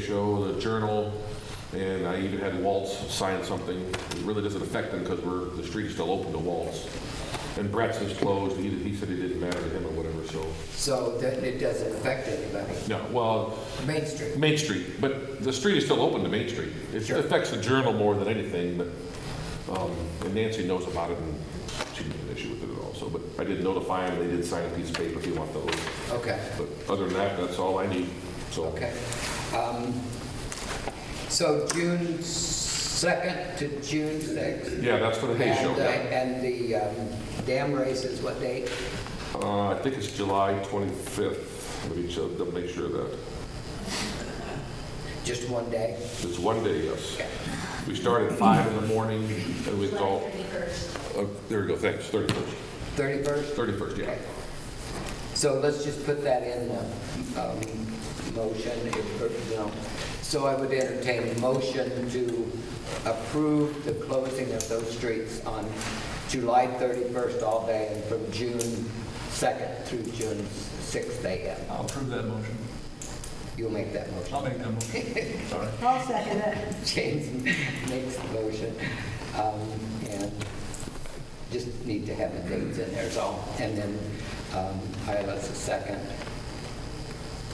Show, the Journal, and I even had Waltz sign something. It really doesn't affect them because we're, the street's still open to Waltz. And Brett's is closed, he, he said it didn't matter to him or whatever, so. So that it doesn't affect anybody. No, well, Main Street. Main Street, but the street is still open to Main Street. It Sure. affects the Journal more than anything, but, um, and Nancy knows about it and she didn't have an issue with it at all, so, but I did notify him, they did sign a piece of paper if you want those. Okay, But other than that, that's all I need, so. okay. Um, So June 2nd to June 6th. Yeah, that's for the hay show, And, uh, yeah. And the um, dam race is what date? Uh, I think it's July 25th. Let me check, double make sure of that. Just one day? It's one day, yes. Okay. We start at five in the morning and we go, uh, there we go, thanks, 31st. 31st? 31st, yeah. So let's just put that in the um, motion, if, or, you know. So I would entertain a motion to approve the closing of those streets on July 31st all day and from June 2nd through June 6th AM. I'll approve that motion. You'll make that I'll motion. make that motion. Sorry. I'll second it. James makes the motion. um, And just need to have the dates in there, so. And then um, Hyla's a second.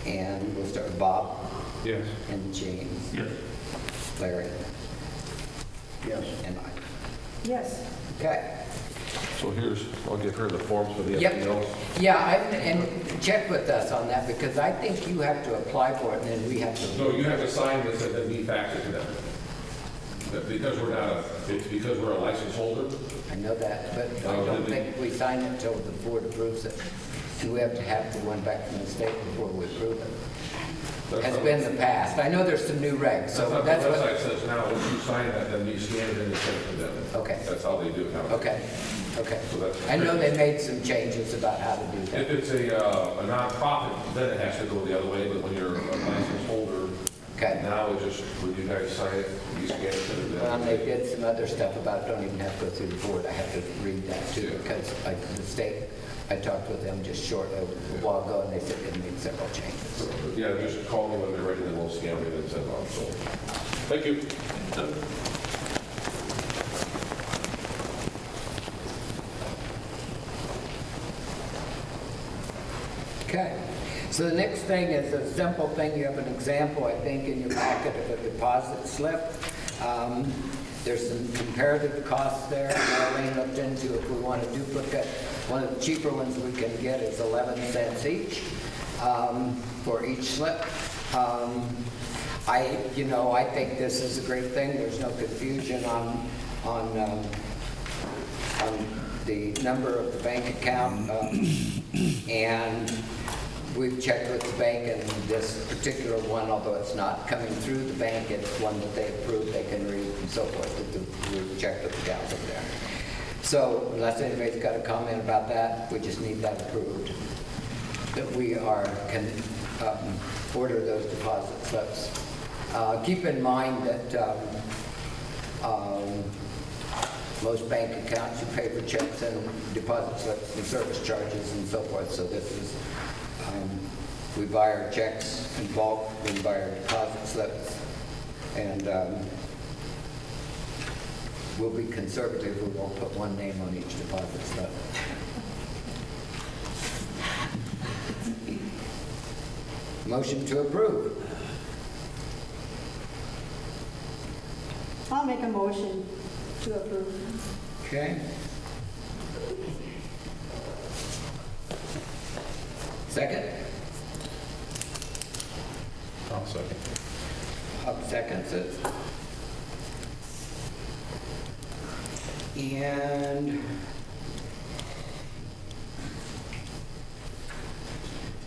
And we'll start with Bob Yes. and James, Yes. Larry, Yes. and I. Yes. Okay. So here's, I'll give her the forms for the Yep. FPL. Yeah, I- and check with us on that because I think you have to apply for it and then we have to. No, you have to sign this and then we fax it to them. But Because we're not a, it's because we're a license holder. I know that, but I Oh, don't did they- think we sign it until the board approves it. And we have to have the one back from the state before we approve it. That's Has not- been the past. I know there's some new regs, That's so not, the that's what, website says now, once you sign that, then you scan it and you send it to them. Okay. That's how they do it now. okay, okay. So that's- I know they made some changes about how to do If that. it's a, uh, a nonprofit, then it has to go the other way, but when you're a license holder, Okay. now it just, when you guys sign it, you scan it to them. Um, they did some other stuff about don't even have to go through the board. I have to read that too Yeah. because I, the state, I talked with them just short a while ago and they said they made several changes. Yeah, just call me when they're ready, then we'll scan it and send it on, so. Thank you. Okay, so the next thing is a simple thing, you have an example, I think, in your packet of a deposit slip. Um, There's some comparative costs there, Marlene looked into if we want a duplicate, one of the cheaper ones we can get is 11 cents each um, for each slip. Um, I, you know, I think this is a great thing, there's no confusion on, on, um, on the number of the bank account. um, And we've checked with the bank and this particular one, although it's not coming through the bank, it's one that they approve, they can read and so forth. We've checked with the gals up there. So unless anybody's got a comment about that, we just need that approved that we are, can um, order those deposit slips. Uh, Keep in mind that um, um, most bank accounts, you pay for checks and deposit slips and service charges and so forth, so this is, um, we buy our checks in bulk, we buy our deposit slips, and um, we'll be conservative, we won't put one name on each deposit slip. Motion to approve. I'll make a motion to approve. Okay. Second? I'll second. Up seconds it. And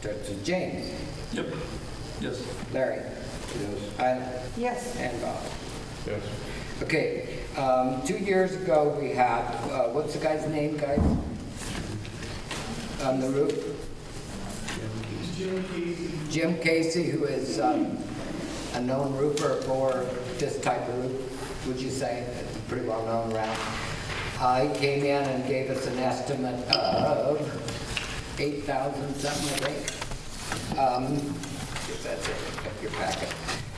starts with James, Yep. Yes. Larry, Isla, Yes. and Bob. Yes. Okay, um, two years ago, we had, uh, what's the guy's name, guys? On the roof? Jim Casey. Jim Casey, who is um, a known roofer for this type of roof, would you say? Pretty well known around. Uh, He came in and gave us an estimate of 8,000 something, I think. Um, If that's it, up your packet.